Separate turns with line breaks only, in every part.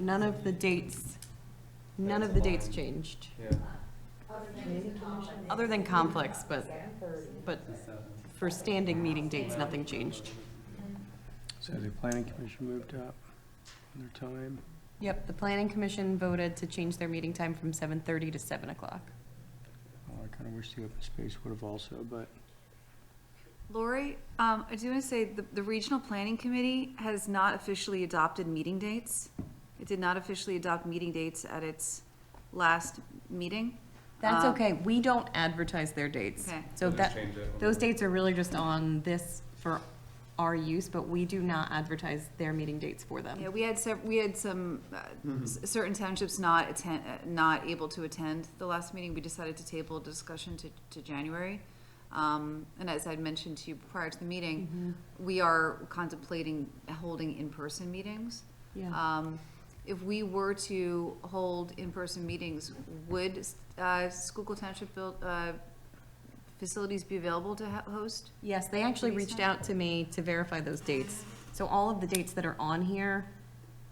None of the dates, none of the dates changed,
Yeah.
other than conflicts, but, but for standing meeting dates, nothing changed.
So the planning commission moved up their time.
Yep, the planning commission voted to change their meeting time from seven thirty to seven o'clock.
Oh, I kind of wish the open space would have also, but
Lori, um, I do want to say the, the Regional Planning Committee has not officially adopted meeting dates. It did not officially adopt meeting dates at its last meeting.
That's
Um,
okay, we don't advertise their dates.
Okay.
So
We'll just
that,
change it when
those
we-
dates are really just on this for our use, but we do not advertise their meeting dates for them.
Yeah, we had sev- we had some, uh, s- certain townships not attend, uh, not able to attend the last meeting. We decided to table a discussion to, to January. Um, and as I'd mentioned to you prior to the
Mm-hmm.
meeting, we are contemplating holding in-person meetings.
Yeah.
Um, if we were to hold in-person meetings, would, uh, Schuylkill Township build, uh, facilities be available to ho- host?
Yes, they actually
Pretty
reached
soon.
out to me to verify those dates. So all of the dates that are on here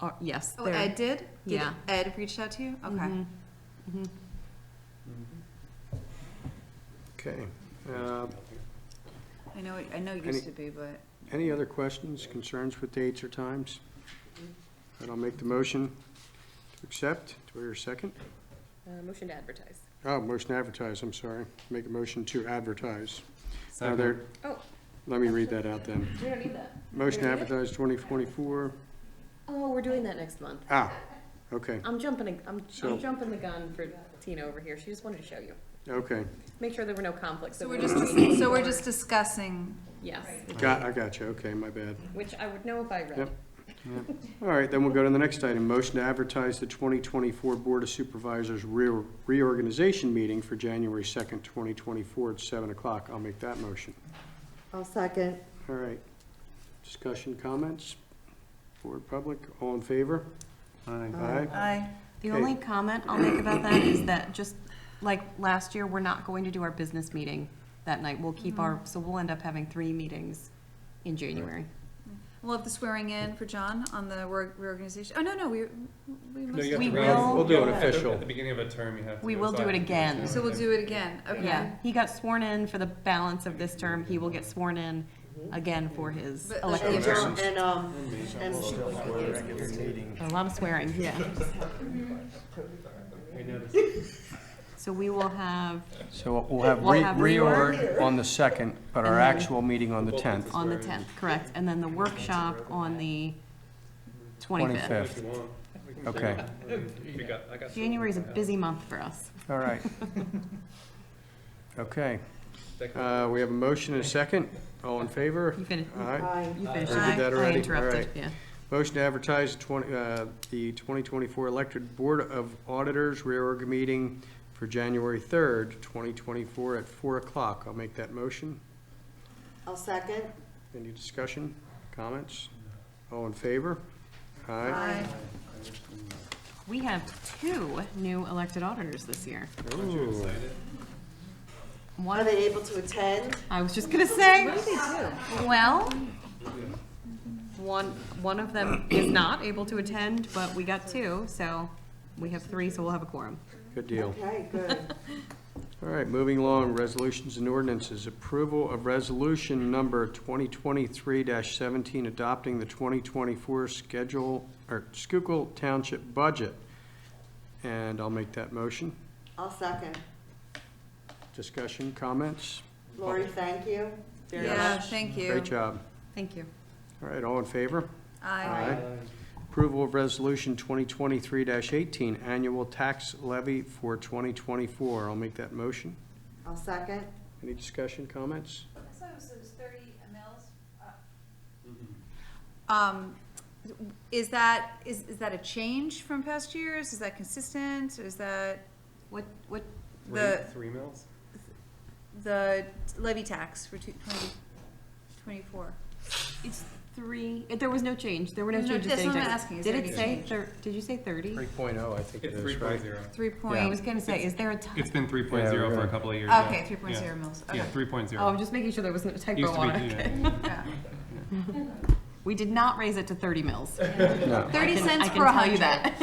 are, yes,
Oh,
they're-
Ed did? Did
Yeah.
Ed reached out to you? Okay.
Mhm. Mhm.
Okay. Uh,
I know, it- I know it
Any-
used to be, but.
Any other questions, concerns with dates or times? Then I'll make the motion to accept. Do I hear a second?
Uh, Motion to advertise.
Oh, motion to advertise, I'm sorry. Make a motion to advertise. Now there,
Oh.
let me read that out then.
We don't need that.
Motion to
Read it?
advertise 2024.
Oh, we're doing that next month.
Ah, okay,
I'm jumping, I'm,
So-
I'm jumping the gun for Tina over here. She just wanted to show you.
okay.
Make sure there were no conflicts.
So
that
we're
were
just, so we're just discussing,
Yes,
Got, I got you, okay, my bad.
which I would know if I read.
Yep. All right, then we'll go to the next item. Motion to advertise the 2024 Board of Supervisors re- reorganization meeting for January 2nd, 2024 at 7 o'clock. I'll make that motion.
I'll second.
All right. Discussion, comments? Board, public, all in favor? Aye.
Aye. The
Okay.
only comment I'll make about that is that just, like, last year, we're not going to do our business meeting that night. We'll keep our, so we'll end up having three meetings in January.
we'll have the swearing in for John on the reor- reorganization. Oh, no, no, we, we must.
have to We run- will-
We'll do it
At the-
official.
At the beginning of a term, you have to.
We will do it again.
So we'll do it again,
Yeah,
okay.
he got sworn in for the balance of this term. He will get sworn in again for his
But-
elected term.
And, um, and
A lot of swearing, yeah. So we will have
So we'll have
We'll have re- reorg
on the 2nd, but
our And then-
meeting on the
10th.
on the 10th, correct, and then the workshop on the 25th.
If
25th.
you want. We can
Okay.
do it. We got- I got some-
January is a busy month for us.
All right. Okay.
That can-
Uh, We have a motion and a second. All in favor?
You finished,
Aye.
I,
you finished.
I did that already.
I interrupted,
Alright.
yeah.
Motion to advertise 20 uh, the 2024 elected Board of Auditors reorg meeting for January 3rd, 2024 at 4 o'clock. I'll make that motion.
I'll second.
Any discussion, comments? All in favor? Aye.
Aye.
We have two new elected auditors this year.
Aren't you excited?
Are
One,
they able to attend?
I was just gonna say. Well, one, one of them is not able to attend, but we got two, so we have three, so we'll have a quorum.
Good deal.
Okay, good.
All right, moving along, resolutions and ordinances. Approval of resolution number 2023-17, adopting the 2024 schedule, or Schuylkill Township budget. And I'll make that motion.
I'll second.
Discussion, comments?
Lori, thank you. very
Yeah,
much.
thank you.
Great job.
Thank you.
All right, all in favor?
Aye.
Approval of resolution 2023-18, annual tax levy for 2024. I'll make that motion.
I'll second.
Any discussion, comments?
Um, is that, is, is that a change from past years? Is that consistent? Is that
What, what,
the,
Three, three mills?
the levy tax for two- 20 24?
it's three, there was no change, there were no
No,
changes. to
that's what
any
I'm
type.
asking, is
Did
there
it
any
say,
change?
thir- did you say thirty?
3.0, oh, I think it
It's
is,
three
right?
point zero.
Three
I
point,
was gonna say, is there a time?
It's been three point zero for a
right.
couple of years. yeah.
okay, three point
Yeah.
zero mils,
Yeah,
okay.
three point
Oh,
zero.
I'm just making sure there wasn't a typo
Used to be,
on it.
yeah.
Yeah. We did not raise it to thirty mils.
No.
Thirty
can- I
cents
can
per
tell you
hundred.
that.